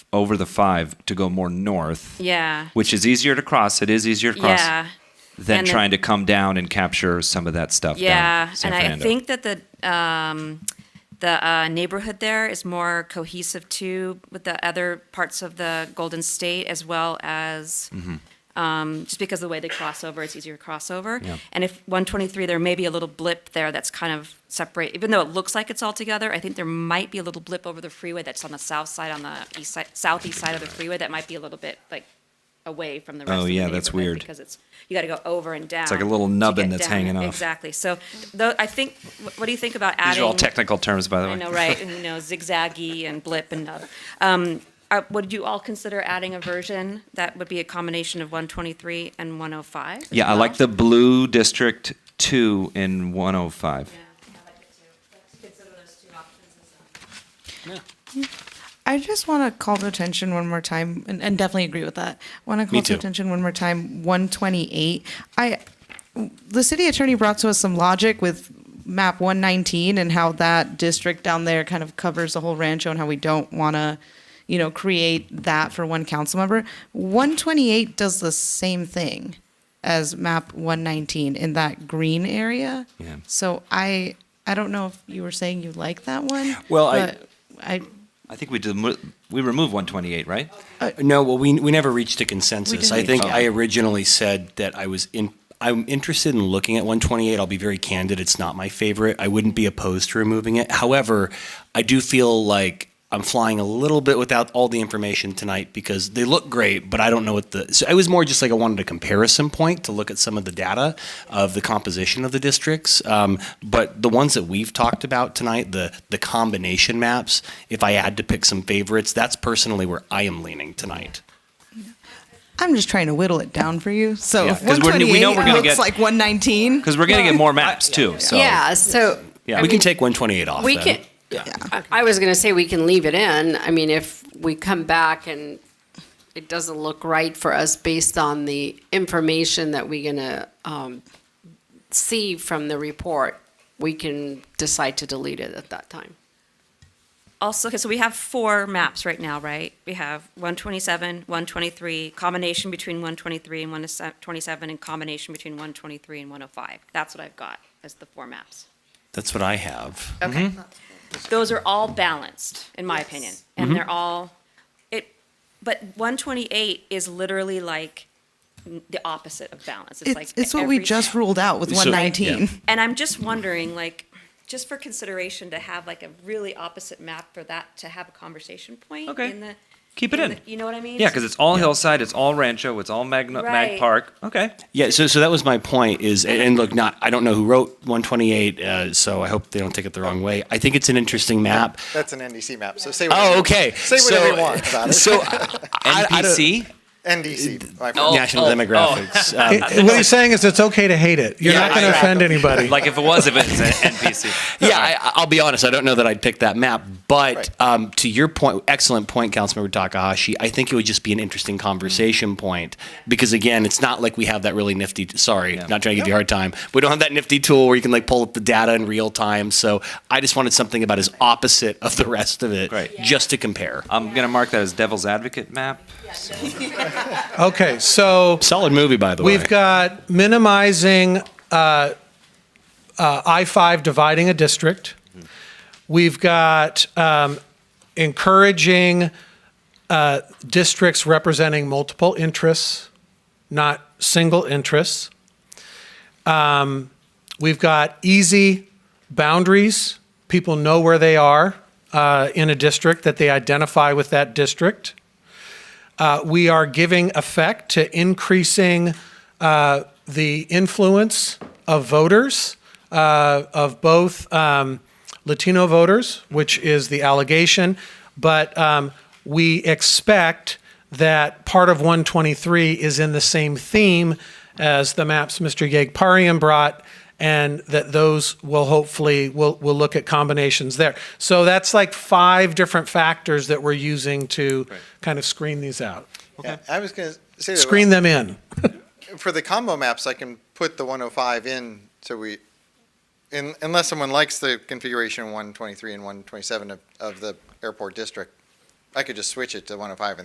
over the five to go more north, Yeah. which is easier to cross. It is easier to cross Yeah. than and then- trying to come down and capture some of that stuff. down Yeah. San And I Fernando. think that the um, the uh, neighborhood there is more cohesive too with the other parts of the Golden State as well as. Mm-hmm. Um, just because of the way they cross over, it's easier to cross over. Yeah. And if 123, there may be a little blip there that's kind of separate. Even though it looks like it's all together, I think there might be a little blip over the freeway that's on the south side, on the east side, southeast side of the freeway that might be a little bit like away from the rest. Oh, of the yeah, that's neighborhood weird. Because it's you got to go over and down. like a little to nubbin get that's down. hanging off. Exactly. So, though, I think. wh- What do you think about adding? these are all technical terms, by the way. I know, right? and, you know, zigzaggy and blip and. nub. Um, uh, would you all consider adding a version that would be a combination of 123 and 105? Yeah, I like the blue district two in 105. I just want to call to attention one more time, and, and definitely agree with that. Want to call Me to too. attention one more time. One twenty-eight. I, the city attorney brought to us some logic with map one nineteen and how that district down there kind of covers the whole Rancho, and how we don't want to, you know, create that for one council member. One twenty-eight does the same thing as map one nineteen in that green area. Yeah. So I, I don't know if you were saying you like that one. Well, I- but I I think we did, we removed 128, right? Uh, No, well, we, we never reached a consensus. I didn't. think Oh. I originally said that I was in, I'm interested in looking at 128. I'll be very candid. It's not my favorite. I wouldn't be opposed to removing it. However, I do feel like I'm flying a little bit without all the information tonight because they look great, but I don't know what the, so I was more just like I wanted a comparison point to look at some of the data of the composition of the districts. Um, but the ones that we've talked about tonight, the, the combination maps, if I had to pick some favorites, that's personally where I am leaning tonight. I'm just trying to whittle it down for you. So Yeah, if 'cause we're- 128 we know we're gonna looks get- like 119. Because we're going to get more maps too. So yeah, so Yeah, we can take 128 off. we then. can. I- I was going to say we can leave it in. I mean, if we come back and it doesn't look right for us based on the information that we're going to um, see from the report, we can decide to delete it at that time. Also, okay, so we have four maps right now, right? We have 127, 123, combination between 123 and 127, and combination between 123 and 105. That's what I've got as the four maps. That's what I have. Okay. Those are all balanced, in my opinion, Mm-hmm. and they're all, it, but 128 is literally like n- the opposite of balance. It's like. It's, it's what we every- just ruled out with So- 119. And I'm just wondering, like, just for consideration to have like a really opposite map for that to have a conversation point Okay. in the. Keep it in. the- You know what I mean? Yeah, because it's all hillside, it's all Rancho, it's all Magna, Mag Right. Park. Okay. Yeah, so so that was my point is and, and look, not I don't know who wrote 128, uh, so I hope they don't take it the wrong way. I think it's an interesting map. That's an NDC map. So say whatever, Oh, okay. say whatever so, you want about it. So I, I, I don't- NPC. NDC. my Oh, friend. National Demographics. Um, It- what he's saying is it's okay to hate it. You're Yeah, not going to exactly. offend anybody. Like if it was, if it's an NPC. yeah, I, I'll be honest. I don't know that I'd pick that map, but Right. um, to your point, excellent point, Councilmember Takahashi. I think it would just be an interesting conversation point because again, it's not like we have that really nifty. Sorry, not trying to give you a hard time. We don't have that nifty tool where you can like pull up the data in real time. So I just wanted something about as opposite of the rest of it, Great. Yeah. just to compare. I'm going to mark that as devil's advocate map. Okay, so Solid movie, by the way. we've got minimizing uh, uh, I-5 dividing a district. We've got um, encouraging uh, districts representing multiple interests, not single interests. Um, We've got easy boundaries. People know where they are uh, in a district, that they identify with that district Uh, we are giving effect to increasing uh, the influence of voters, uh, of both um, Latino voters, which is the allegation, but um, we expect that part of 123 is in the same theme as the maps Mr. Yagparian brought, and that those will hopefully, we'll, we'll look at combinations there. So that's like five different factors that we're using to kind of screen these out. Yeah, I was going to say that Screen them in. for the combo maps. I can put the 105 in, so we, in, unless someone likes the configuration 123 and 127 of, of the airport district, I could just switch it to 105 and